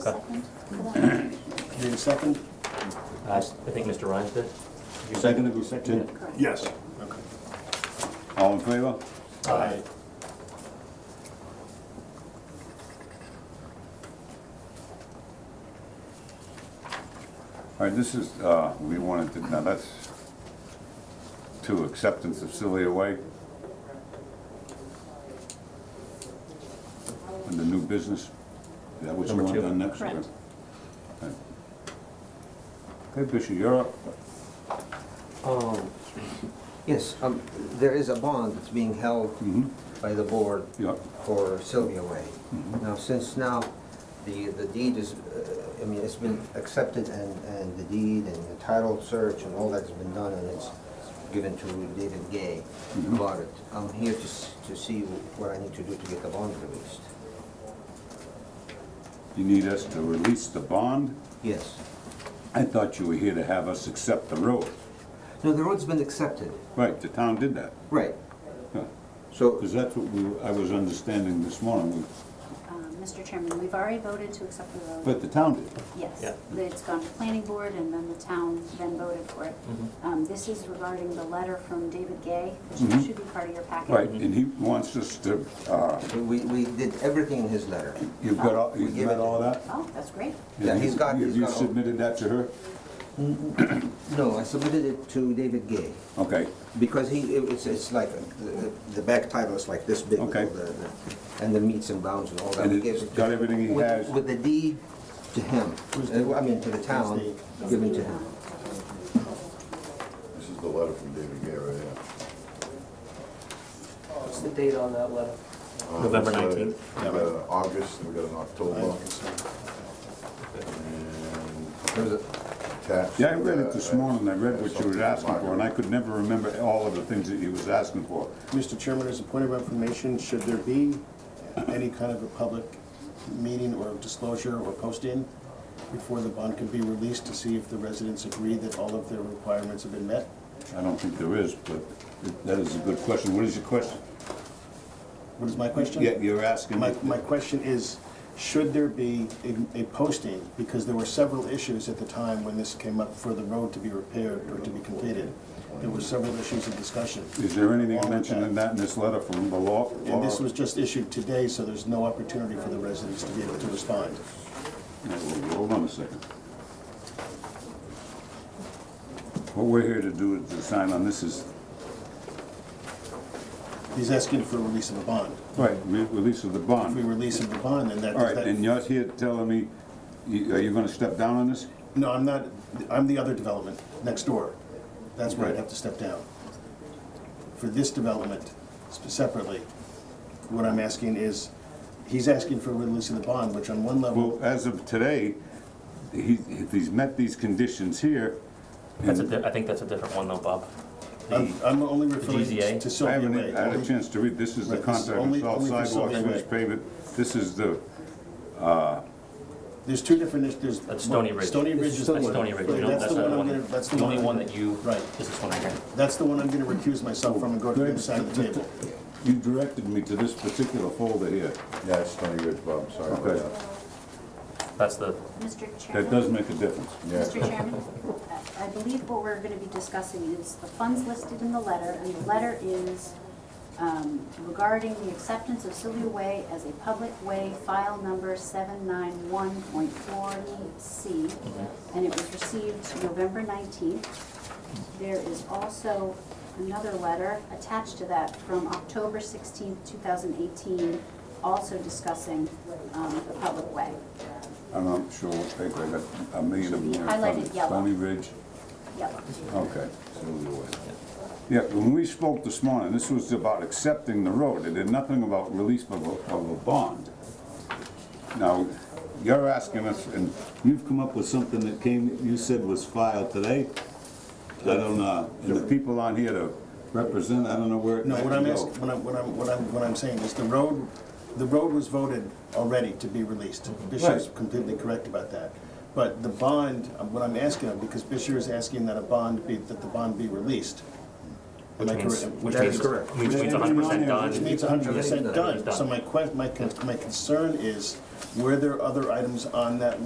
Second. Come Need a second? I I think Mr. Rhines did. You seconded, you seconded? on. Correct. Yes. All in favor? Uh, Aye. All right, this is, uh, we wanted to, now that's to acceptance of Celia Way. And the new business, is that what you Number want two. done next? Correct. Okay. Okay, Bishop, you're up. Um, Yes, um, there is a bond that's being held Mhm. by the board Yeah. for Sylvia Way. Now, since now, the the deed is, uh, I mean, it's been accepted and and the deed and the title search and all that's been done and it's given to David Gay about it. I'm here to s- to see what I need to do to get the bond released. You need us to release the bond? Yes. I thought you were here to have us accept the road. No, the road's been accepted. Right, the town did that. Right. Yeah. So, Because that's what we, I was understanding this morning, We- Um, Mr. Chairman, we've already voted to accept the road. but the town did. Yes, Yeah. it's gone to planning board and then the town then voted for it. Um, This is regarding the letter from David Gay, which should be part of your packet. Mm-hmm. Right, and he wants us to, uh, we we did everything in his letter. you've got all, you've We give got it all that? Oh, that's great. Yeah, And he's you- got- Have he's you got all- submitted that to her? No, I submitted it to David Gay. Okay, Because he, it- it's, it's like, the- the back title is like this big. with Okay. all the- the- And the meets and bounds and all that. And We it's gave it to- got everything he with- has. With the deed to him, Uh, I mean, to the town, given to him. This is the letter from David Gay right here. What's the date on that letter? Uh, November it's, uh, 19th. We got an August, we got an October. And There's a- attached yeah, I read to it this that, uh, morning, I read what you were asking for, and I could never remember all of the things that he was asking for. Mr. Chairman, as a point of information, should there be any kind of a public meeting or disclosure or posting before the bond can be released to see if the residents agree that all of their requirements have been met? I don't think there is, but it- that is a good question. What is your question? What is my question? Yeah, you're asking, My, my question is, should there be a, a posting? Because there were several issues at the time when this came up for the road to be repaired or to be completed. There were several issues of discussion. is there anything mentioned in that in this letter from the law? And this was just issued today, so there's no opportunity for the residents to be able to respond. Hold on a second. What we're here to do is to sign on this is, He's asking for a release of a bond. right, re- release of the If we bond. release him the bond, then that, All right, that- and you're here telling me, you- are you gonna step down on this? no, I'm not, I'm the other development next door. That's where I'd have to step down. For this development sp- separately, what I'm asking is, he's asking for a release of the bond, which on one level, Well, as of today, he, if he's met these conditions here, That's a, di- I think that's a different one though, Bob. I'm, I'm only referring GZA? I to Sylvia haven't Way. had a chance to read, this is the Right, this is contract, only- it's all only for sidewalks, Sylvia finished Way. pavement, this is the, There's two different, is- there's. That's Stony Ridge. Stony Ridge is. the That's one. Stony Ridge. Right, You don't- That's the not one I'm gonna, that's the The one. only one that you, Right. is this one right here. That's the one I'm gonna recuse myself from and go to the other side of the table. you directed me to this particular folder here. Yeah, it's Stony Ridge, Bob, sorry about Okay. that. That's the, Mr. That Chairman. does make a difference. Yeah. Mr. Chairman, I- I believe what we're going to be discussing is the funds listed in the letter, and the letter is um, regarding the acceptance of Sylvia Way as a public way, file number 791.40C, and it was received November 19th. There is also another letter attached to that from October 16th, 2018, also discussing um, the public way. I'm not sure what paper, I got a million of them here. in front of me. Highlighted yellow. Stony Ridge, Yep. okay, Sylvia Way. Yeah, when we spoke this morning, this was about accepting the road, it did nothing about release of a, of a bond. Now, you're asking us, and you've come up with something that came, you said was filed today? I don't know, and the people on here to represent, I don't know where it No, might what I'm go. asking, what I'm, what I'm, what I'm, what I'm saying is the road, the road was voted already to be released. Bishop's Right. completely correct about that. But the bond, uh, what I'm asking, of, because Bishop is asking that a bond be, that the bond be released. Am which I means, correct? which That means, is correct. which means Everything hundred percent on there, done. Which means hundred percent Done. done. Done. So my que, my, con- my concern is Were there other items on that list